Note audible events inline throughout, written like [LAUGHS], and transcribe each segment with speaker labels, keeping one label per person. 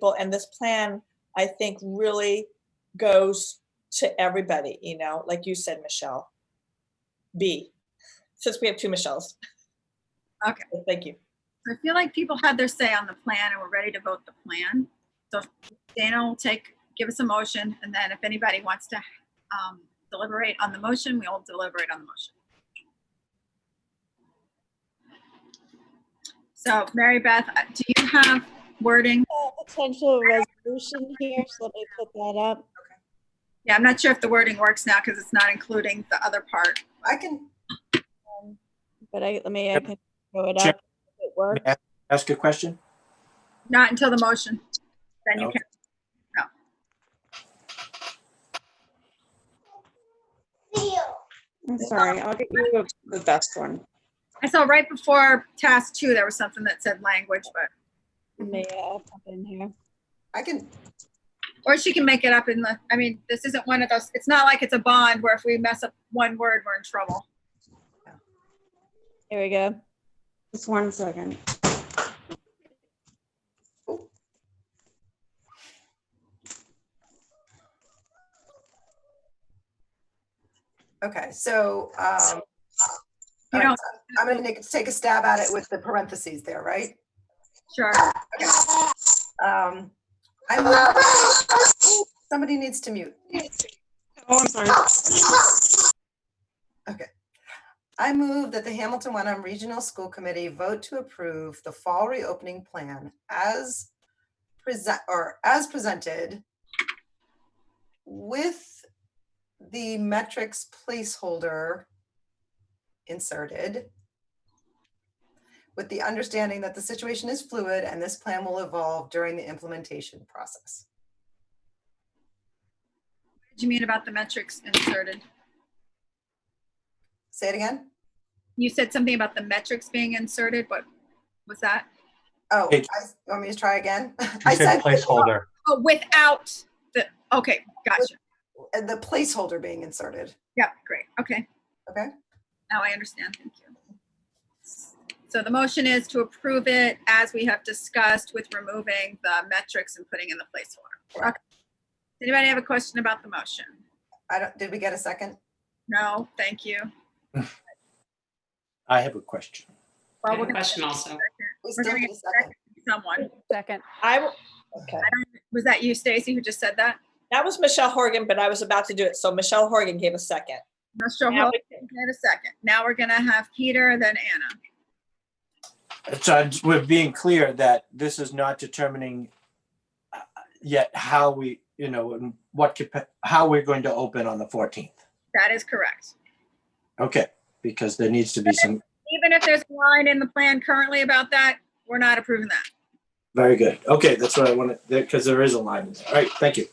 Speaker 1: people and this plan i think really goes to everybody you know like you said michelle b since we have two michelles
Speaker 2: Okay.
Speaker 1: thank you
Speaker 2: I feel like people had their say on the plan and we're ready to vote the plan. So Dana will take, give us a motion, and then if anybody wants to um, deliberate on the motion, we all deliberate on the motion. So Mary Beth, uh, do you have wording?
Speaker 3: a potential resolution here, so let me put that up.
Speaker 2: Yeah, I'm not sure if the wording works now because it's not including the other part.
Speaker 4: I can,
Speaker 3: But I, let me, I
Speaker 5: Yep.
Speaker 3: can throw it
Speaker 5: Check.
Speaker 3: up. if It works.
Speaker 5: ask a question?
Speaker 2: Not until the motion. Then you
Speaker 5: Okay.
Speaker 2: can, no.
Speaker 6: I'm sorry, I'll get you the best one.
Speaker 2: I saw right before task two, there was something that said language, but
Speaker 3: Let me, uh, pop it in here.
Speaker 4: I can,
Speaker 2: Or she can make it up in the, I mean, this isn't one of those, it's not like it's a bond where if we mess up one word, we're in trouble.
Speaker 3: Here we go.
Speaker 6: Just one second.
Speaker 4: okay, so, um,
Speaker 2: You
Speaker 4: all right,
Speaker 2: don't-
Speaker 4: I'm gonna make- take a stab at it with the parentheses there, right?
Speaker 2: Sure.
Speaker 4: Um, I move- somebody needs to mute.
Speaker 6: Oh, I'm sorry.
Speaker 4: I move that the Hamilton Wenham Regional School Committee vote to approve the fall reopening plan as present, or as presented with the metrics placeholder inserted with the understanding that the situation is fluid and this plan will evolve during the implementation process.
Speaker 2: What do you mean about the metrics inserted?
Speaker 4: Say it again?
Speaker 2: You said something about the metrics being inserted, what was that?
Speaker 4: Oh, I,
Speaker 5: Page-
Speaker 4: want me to try again? [LAUGHS]
Speaker 5: You
Speaker 4: I
Speaker 5: said placeholder.
Speaker 2: Oh, without the, okay, gotcha.
Speaker 4: The placeholder being inserted.
Speaker 2: Yep, great, okay.
Speaker 4: Okay.
Speaker 2: Now I understand, thank you. So the motion is to approve it as we have discussed with removing the metrics and putting in the placeholder. Okay. Does Anybody have a question about the motion?
Speaker 4: I don't, did we get a second?
Speaker 2: No, thank you.
Speaker 5: I have a question.
Speaker 2: Well,
Speaker 7: I
Speaker 2: we're
Speaker 7: have a
Speaker 2: gonna
Speaker 7: question also.
Speaker 4: We
Speaker 2: We're
Speaker 4: still
Speaker 2: gonna
Speaker 4: need a second.
Speaker 2: someone.
Speaker 8: Second.
Speaker 1: i w- okay
Speaker 2: Was that you, Stacy, who just said that?
Speaker 1: that was michelle horgan but i was about to do it so michelle horgan gave a second
Speaker 2: Not sure.
Speaker 1: Now
Speaker 2: Hold on a second. Now we're gonna have Peter, then Anna.
Speaker 5: So I- we're being clear that this is not determining uh, yet how we, you know, and what, capa- how we're going to open on the 14th.
Speaker 2: That is correct.
Speaker 5: Okay, because there needs to be some,
Speaker 2: Even if there's a line in the plan currently about that, we're not approving that.
Speaker 5: very good. Okay, that's what I wanted, because there is a line. in there. All right, thank you.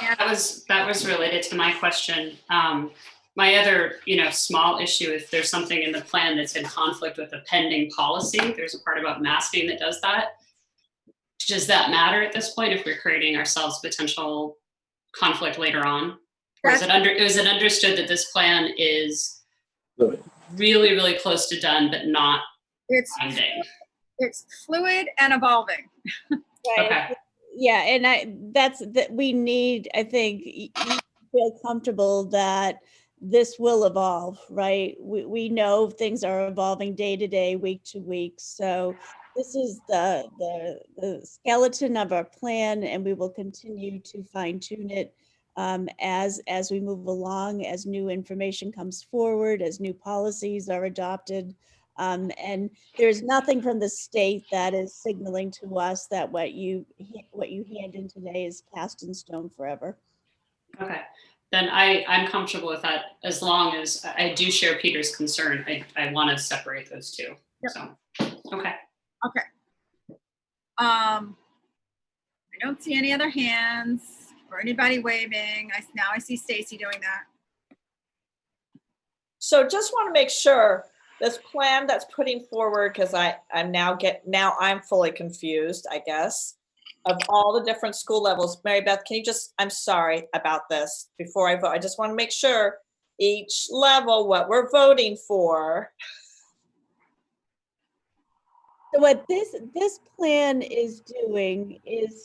Speaker 7: That was, that was related to my question. Um, my other, you know, small issue, if there's something in the plan that's in conflict with a pending policy, there's a part about masking that does that. Does that matter at this point if we're creating ourselves potential conflict later on? Or is it under, is it understood that this plan is
Speaker 5: Fluid.
Speaker 7: really, really close to done, but not
Speaker 2: It's,
Speaker 7: ending?
Speaker 2: it's fluid and evolving.
Speaker 7: Okay.
Speaker 3: Yeah, and I, that's, that, we need, I think, y- you feel comfortable that this will evolve, right? We, we know things are evolving day to day, week to week, so this is the, the, the skeleton of our plan, and we will continue to fine tune it um, as, as we move along, as new information comes forward, as new policies are adopted. Um, and there's nothing from the state that is signaling to us that what you, ha- what you hand in today is cast in stone forever.
Speaker 7: Okay, then I, I'm comfortable with that as long as I I do share Peter's concern. I, I want to separate those two.
Speaker 2: Yep.
Speaker 7: So, okay,
Speaker 2: Um, I don't see any other hands or anybody waving. I, now I see Stacy doing that.
Speaker 1: So just want to make sure this plan that's putting forward, because I, I'm now get, now I'm fully confused, I guess, of all the different school levels. Mary Beth, can you just, I'm sorry about this before I vote. I just want to make sure each level, what we're voting for.
Speaker 3: So what this, this plan is doing is